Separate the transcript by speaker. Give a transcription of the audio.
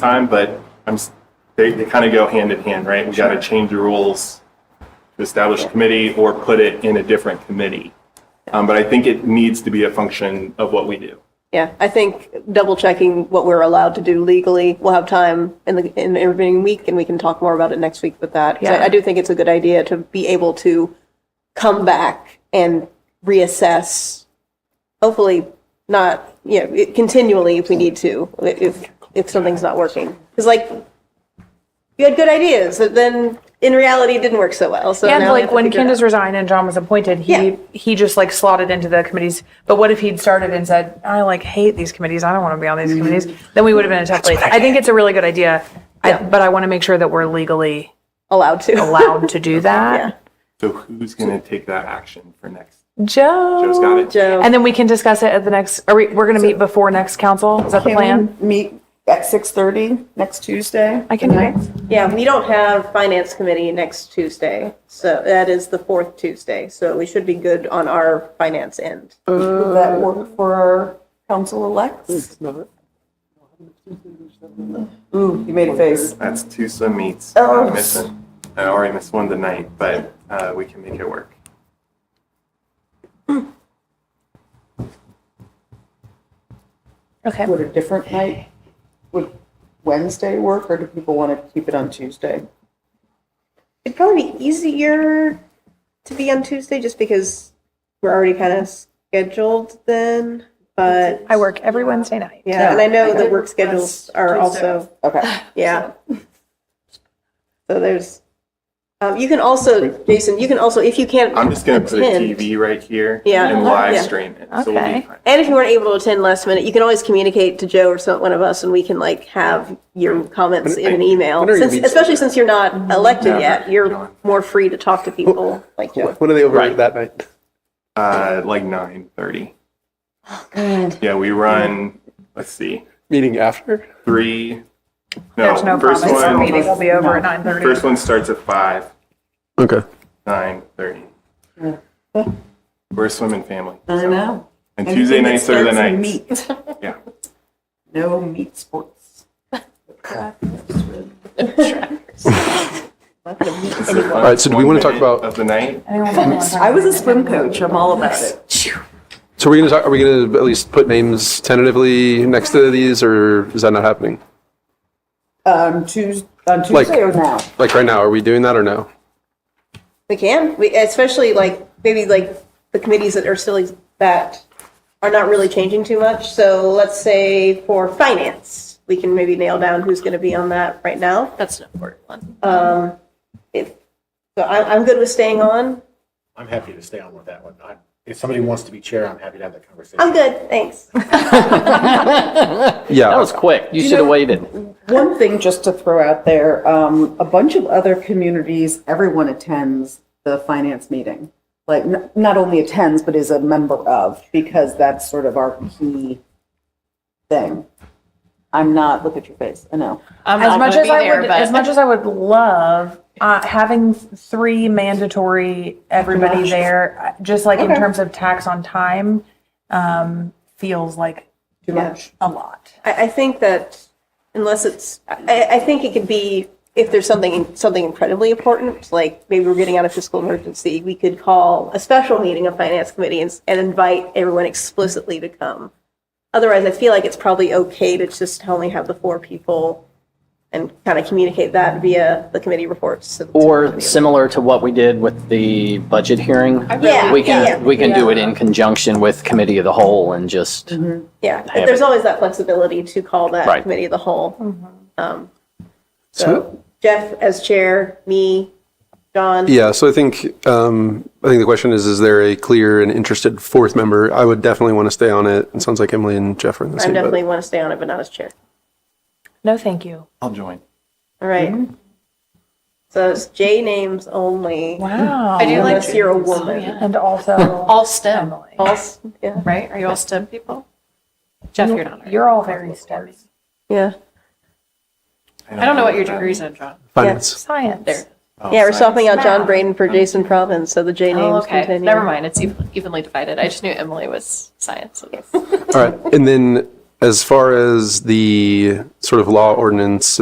Speaker 1: time, but I'm, s- they, they kind of go hand in hand, right? We got to change the rules to establish a committee or put it in a different committee. Um, but I think it needs to be a function of what we do.
Speaker 2: Yeah, I think double checking what we're allowed to do legally, we'll have time in the, in the intervening week and we can talk more about it next week with that. 'Cause I-
Speaker 3: Yeah.
Speaker 2: I do think it's a good idea to be able to come back and reassess, hopefully not, you know, it- continually if we need to, if, if something's not working. Because like, you had good ideas, but then in reality it didn't work so well, so
Speaker 3: And
Speaker 2: now we have
Speaker 3: like
Speaker 2: to
Speaker 3: when
Speaker 2: figure it out.
Speaker 3: Candace resigned and John was appointed, he
Speaker 2: Yeah.
Speaker 3: he just like slotted into the committees. But what if he'd started and said, "I like hate these committees. I don't want to be on
Speaker 2: Mm-hmm.
Speaker 3: these committees." Then we would have been in a tough place. I, think it's a really good idea, I, but I want to make sure that we're legally
Speaker 2: Allowed to.
Speaker 3: allowed to do that.
Speaker 1: So who's going to take that action for next?
Speaker 3: Joe,
Speaker 1: Joe's got it.
Speaker 2: Joe.
Speaker 3: And then we can discuss it at the next. Are we? We're going to meet before next council. Is that the
Speaker 4: Can
Speaker 3: plan?
Speaker 4: we meet at 6:30 next Tuesday?
Speaker 3: I can do it.
Speaker 2: Yeah, we don't have finance committee next Tuesday, so that is the fourth Tuesday, so we should be good on our finance end.
Speaker 4: Would that work for our council-elects? Ooh, you made a face.
Speaker 1: That's Tuesday meets.
Speaker 4: Oh.
Speaker 1: I'm missing. I already missed one tonight, but uh, we can make it work.
Speaker 3: Okay.
Speaker 4: Would a different night, would Wednesday work, or do people want to keep it on Tuesday?
Speaker 2: It'd probably be easier to be on Tuesday, just because we're already kind of scheduled then, but,
Speaker 3: I work every Wednesday night.
Speaker 2: yeah, and I know the work schedules are also,
Speaker 4: Okay.
Speaker 2: yeah. So there's, um, you can also, Jason, you can also, if you can't
Speaker 1: I'm just going to put a
Speaker 2: attend-
Speaker 1: TV right here
Speaker 2: Yeah.
Speaker 1: and live
Speaker 2: Yeah.
Speaker 1: stream it. So we'll be
Speaker 3: Okay.
Speaker 1: fine.
Speaker 2: And if you weren't able to attend last minute, you can always communicate to Joe or some, one of us, and we can like have your comments in an email.
Speaker 5: Whenever you
Speaker 2: Since-
Speaker 5: meet
Speaker 2: Especially since you're not elected
Speaker 1: Yeah,
Speaker 2: yet, you're
Speaker 1: John.
Speaker 2: more free to talk to people like Joe.
Speaker 5: When are they over
Speaker 1: Right.
Speaker 5: that night?
Speaker 1: Uh, like nine thirty. Oh God. Yeah, we run. Let's see,
Speaker 5: Meeting after?
Speaker 1: three.
Speaker 3: There's no
Speaker 1: first
Speaker 3: promise. The meeting
Speaker 1: one.
Speaker 3: will be over at nine thirty.
Speaker 1: First one starts at five.
Speaker 5: Okay.
Speaker 1: Nine thirty. We're a swimming family,
Speaker 4: I know.
Speaker 1: and Tuesday nights are the nights.
Speaker 4: Meat.
Speaker 1: Yeah.
Speaker 4: No meat sports. Not gonna meet
Speaker 1: It's the
Speaker 4: anyone.
Speaker 1: fun
Speaker 5: right, so do we wanna
Speaker 1: one
Speaker 5: talk
Speaker 1: minute
Speaker 5: about-
Speaker 1: of the night?
Speaker 4: I was a swim coach, I'm all about it.
Speaker 5: So we're gonna talk, are we gonna at least put names tentatively next to these, or is that not happening?
Speaker 4: Um, Tues, on Tuesday or now?
Speaker 5: Like right now, are we doing that or no?
Speaker 2: We can, we, especially like, maybe like the committees that are still, that are not really changing too much. So let's say for finance, we can maybe nail down who's going to be on that right now.
Speaker 6: That's an important one.
Speaker 2: If, so I, I'm good with staying on.
Speaker 7: I'm happy to stay on with that one. I- If somebody wants to be chair, I'm happy to have that conversation.
Speaker 2: I'm good, thanks.
Speaker 5: Yeah.
Speaker 8: That was quick. You should have waited.
Speaker 4: One thing just to throw out there, um, a bunch of other communities, everyone attends the finance meeting. Like, n- not only attends, but is a member of, because that's sort of our key thing. I'm not, look at your face, I know.
Speaker 6: I'm
Speaker 3: as
Speaker 6: not
Speaker 3: much
Speaker 6: gonna
Speaker 3: as
Speaker 6: be
Speaker 3: I
Speaker 6: there,
Speaker 3: would,
Speaker 6: but-
Speaker 3: as much as I would love uh, having three mandatory everybody there, uh, just like in terms of tax on time, um, feels like
Speaker 4: Too much.
Speaker 3: a lot.
Speaker 2: I, I think that unless it's, I, I think it could be, if there's something, something incredibly important, like maybe we're getting out of fiscal emergency, we could call a special meeting of finance committee and, s- and invite everyone explicitly to come. Otherwise, I feel like it's probably okay to just only have the four people and kind of communicate that via the committee reports. to the- to the
Speaker 8: Or
Speaker 2: committee.
Speaker 8: similar to what we did with the budget hearing.
Speaker 2: Yeah,
Speaker 8: We can,
Speaker 2: yeah.
Speaker 8: we can do it in conjunction with committee of the whole and just,
Speaker 2: Yeah,
Speaker 8: have
Speaker 2: there's
Speaker 8: it.
Speaker 2: always that flexibility to call that
Speaker 8: Right.
Speaker 2: committee of the whole.
Speaker 6: Mm-hmm.
Speaker 2: Um,
Speaker 5: So-
Speaker 2: So Jeff as chair, me, John.
Speaker 5: Yeah, so I think, um, I think the question is, is there a clear and interested fourth member? I would definitely want to stay on it. It sounds like Emily and Jeff are in the
Speaker 2: I
Speaker 5: same
Speaker 2: definitely
Speaker 5: boat.
Speaker 2: want to stay on it, but not as chair.
Speaker 3: No, thank you.
Speaker 1: I'll join.
Speaker 2: All right.
Speaker 6: Mm-hmm.
Speaker 2: So it's J names only.
Speaker 3: Wow.
Speaker 6: I do like
Speaker 2: Unless you're a
Speaker 6: Oh,
Speaker 2: woman.
Speaker 6: yeah.
Speaker 3: and also,
Speaker 6: all STEM,
Speaker 2: All s- Yeah,
Speaker 6: right? Are you all STEM people? Jeff, you're not. right?
Speaker 3: you're all very STEM.
Speaker 2: yeah.
Speaker 6: I don't know what your degree's in, John.
Speaker 5: Finance.
Speaker 3: Science.
Speaker 6: There.
Speaker 1: Oh,
Speaker 2: Yeah, we're
Speaker 1: sorry.
Speaker 2: swapping out John Braden for Jason Province, so the J
Speaker 6: Oh,
Speaker 2: names
Speaker 6: okay.
Speaker 2: continue.
Speaker 6: Never mind. It's ev- evenly divided. I just knew Emily was science.
Speaker 5: All right, and then As far as the sort of law ordinance